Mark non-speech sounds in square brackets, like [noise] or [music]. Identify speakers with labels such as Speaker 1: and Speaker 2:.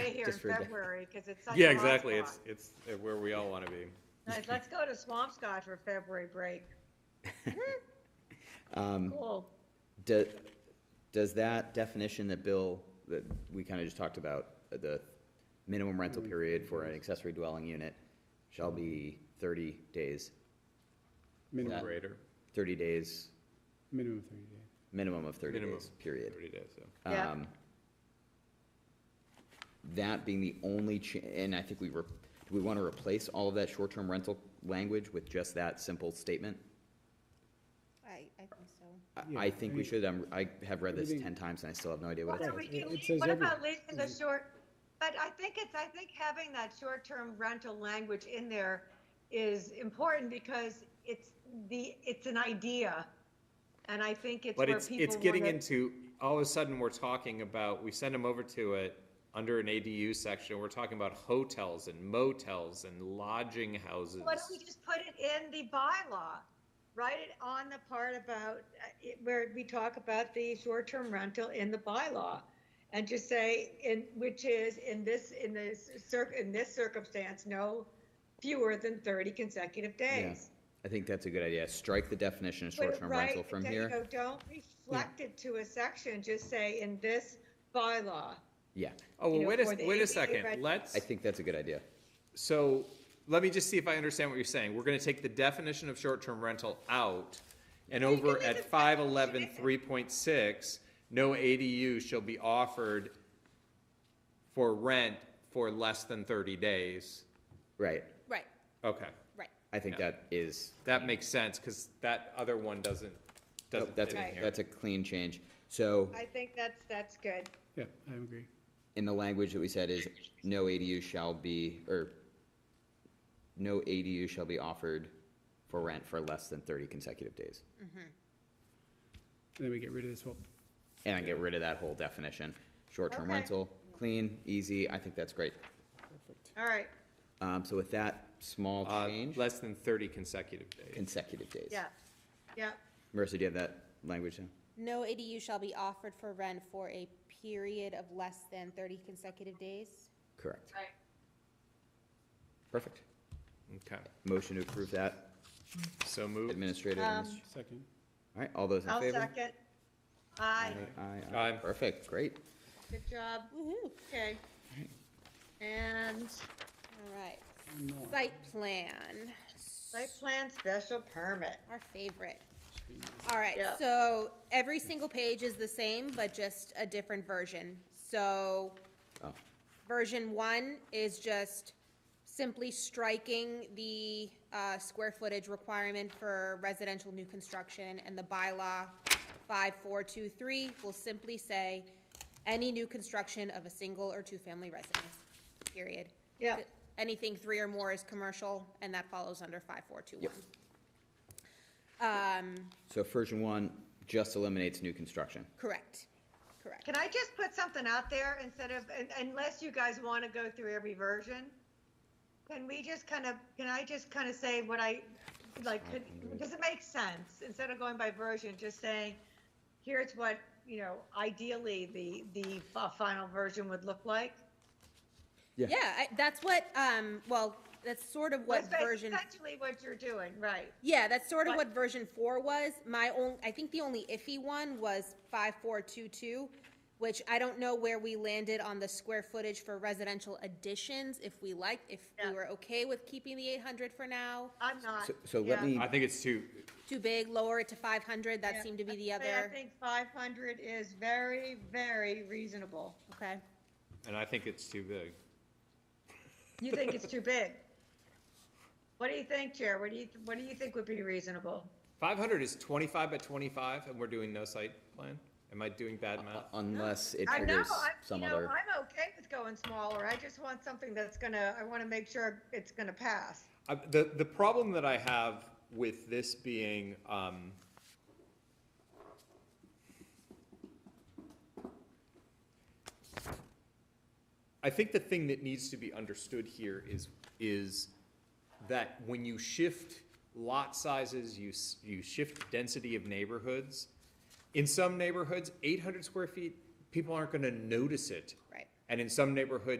Speaker 1: here in
Speaker 2: [laughs] Just for a day.
Speaker 1: February, because it's such a hot spot.
Speaker 3: Yeah, exactly. It's, it's uh, where we all want to be.
Speaker 1: Let's- Let's go to Swampscott for February
Speaker 2: [laughs]
Speaker 1: break.
Speaker 2: Um,
Speaker 1: Cool.
Speaker 2: Do- Does that definition that Bill, that we kind of just talked about, uh, the minimum rental period for an accessory dwelling unit shall be thirty days,
Speaker 3: Minimum
Speaker 2: Yeah.
Speaker 3: rate or
Speaker 2: thirty days,
Speaker 4: Minimum thirty days.
Speaker 2: minimum of thirty
Speaker 3: minimum
Speaker 2: days, period.
Speaker 3: Thirty days, yeah.
Speaker 1: Yeah.
Speaker 2: Um, That being the only cha, and I think we were, do we want to replace all of that short-term rental language with just that simple statement?
Speaker 5: I, I think so.
Speaker 2: I-
Speaker 4: Yeah,
Speaker 2: I think we
Speaker 4: I-
Speaker 2: should, um, I have read this ten
Speaker 4: Everything-
Speaker 2: times and I still have no idea what
Speaker 1: What
Speaker 2: it
Speaker 1: are
Speaker 2: says.
Speaker 1: we
Speaker 4: It- it
Speaker 1: doing?
Speaker 4: says
Speaker 1: What about
Speaker 4: everything.
Speaker 1: leaving the short, but I think it's, I think having that short-term rental language in there is important because it's the, it's an idea. And I think it's where
Speaker 3: But
Speaker 1: people
Speaker 3: it's, it's getting
Speaker 1: wanna-
Speaker 3: into, all of a sudden, we're talking about, we send them over to it, under an ADU section, we're talking about hotels and motels and lodging houses.
Speaker 1: Why don't we just put it in the bylaw? Write it on the part about, uh, it- where we talk about the short-term rental in the bylaw. And just say, in, which is in this, in this cir, in this circumstance, no fewer than thirty consecutive days.
Speaker 2: I think that's a good idea. Strike the definition of
Speaker 1: Put it
Speaker 2: short-term rental
Speaker 1: right-
Speaker 2: from
Speaker 1: you
Speaker 2: here.
Speaker 1: know, Don't reflect it to a section, just say in this bylaw.
Speaker 2: Yeah,
Speaker 3: Oh, well,
Speaker 1: you know,
Speaker 3: wait a,
Speaker 1: for the
Speaker 3: wait a
Speaker 1: ADU
Speaker 3: second,
Speaker 1: reg-
Speaker 3: let's,
Speaker 2: I think that's a good idea.
Speaker 3: so, let me just see if I understand what you're saying. We're gonna take the definition of short-term rental out, and over
Speaker 1: it
Speaker 3: at
Speaker 1: is a-
Speaker 3: five eleven three point six, no ADU shall be offered for rent for less than thirty days.
Speaker 2: Right,
Speaker 5: Right,
Speaker 3: Okay.
Speaker 5: right.
Speaker 2: I think that is,
Speaker 3: That makes sense, because that other one doesn't, doesn't
Speaker 2: that's,
Speaker 3: fit
Speaker 2: a-
Speaker 3: in here.
Speaker 2: that's a clean change. So
Speaker 1: I think that's, that's good.
Speaker 4: Yeah, I agree.
Speaker 2: in the language that we said is, no ADU shall be, or no ADU shall be offered for rent for less than thirty consecutive days.
Speaker 4: Then we get rid of this whole,
Speaker 2: And I get rid of that whole definition. Short-term
Speaker 1: Okay.
Speaker 2: rental, clean, easy, I think that's great.
Speaker 1: All right,
Speaker 2: Um, so with that small
Speaker 3: Uh,
Speaker 2: change,
Speaker 3: Less than thirty consecutive days.
Speaker 2: consecutive days.
Speaker 1: yeah, yeah.
Speaker 2: Marissa, do you have that language now?
Speaker 5: No ADU shall be offered for rent for a period of less than thirty consecutive days.
Speaker 2: Correct.
Speaker 1: Right.
Speaker 2: Perfect.
Speaker 3: Okay,
Speaker 2: Motion to approve that,
Speaker 3: so move.
Speaker 2: administrative.
Speaker 1: Um,
Speaker 2: administ-
Speaker 4: second.
Speaker 2: All right, all those in
Speaker 1: I'll
Speaker 2: favor?
Speaker 1: second. Aye,
Speaker 2: Aye,
Speaker 3: Aye.
Speaker 2: aye. Perfect, great.
Speaker 1: good job.
Speaker 5: Woo-hoo.
Speaker 1: Okay. And
Speaker 5: All right.
Speaker 4: No.
Speaker 5: Site plan,
Speaker 1: site plan special permit.
Speaker 5: our favorite. All right,
Speaker 1: Yeah.
Speaker 5: so every single page is the same, but just a different version. So
Speaker 2: Oh,
Speaker 5: version one is just simply striking the uh, square footage requirement for residential new construction, and the bylaw 5423 will simply say, any new construction of a single or two-family residence, period.
Speaker 1: Yeah.
Speaker 5: Anything three or more is commercial, and that follows under 5421. Um,
Speaker 2: So version one just eliminates new construction.
Speaker 5: correct, correct.
Speaker 1: Can I just put something out there instead of, un- unless you guys want to go through every version? Can we just kind of, can I just kind of say what I, like, could- does it make sense? Instead of going by version, just saying, here's what, you know, ideally the, the fi- final version would look like?
Speaker 2: Yeah.
Speaker 5: Yeah, I- that's what, um, well, that's sort of what
Speaker 1: That's
Speaker 5: version
Speaker 1: Essentially what you're doing, right.
Speaker 5: Yeah, that's sort of
Speaker 1: But-
Speaker 5: what version four was. My own, I think the only iffy one was five four two two, which I don't know where we landed on the square footage for residential additions, if we liked, if we
Speaker 1: Yeah.
Speaker 5: were okay with keeping the eight hundred for now.
Speaker 1: I'm not.
Speaker 2: So, so let
Speaker 1: yeah.
Speaker 2: me,
Speaker 3: I think it's too,
Speaker 5: Too big, lower it to five hundred,
Speaker 1: Yeah,
Speaker 5: that seemed to be the
Speaker 1: I'd say I
Speaker 5: other,
Speaker 1: think five hundred is very, very reasonable.
Speaker 5: okay.
Speaker 3: and I think it's too big.
Speaker 1: You think it's too big? What do you think, Chair? What do you, what do you think would be reasonable?
Speaker 3: Five hundred is twenty-five by twenty-five, and we're doing no site plan? Am I doing bad math?
Speaker 2: Uh, unless it
Speaker 1: I know,
Speaker 2: triggers
Speaker 1: I, you
Speaker 2: some
Speaker 1: know,
Speaker 2: other,
Speaker 1: I'm okay with going smaller. I just want something that's gonna, I wanna make sure it's gonna pass.
Speaker 3: I- The, the problem that I have with this being, um, I think the thing that needs to be understood here is, is that when you shift lot sizes, you, s- you shift density of neighborhoods. In some neighborhoods, eight hundred square feet, people aren't gonna notice it.
Speaker 5: Right.
Speaker 3: And in some neighborhoods,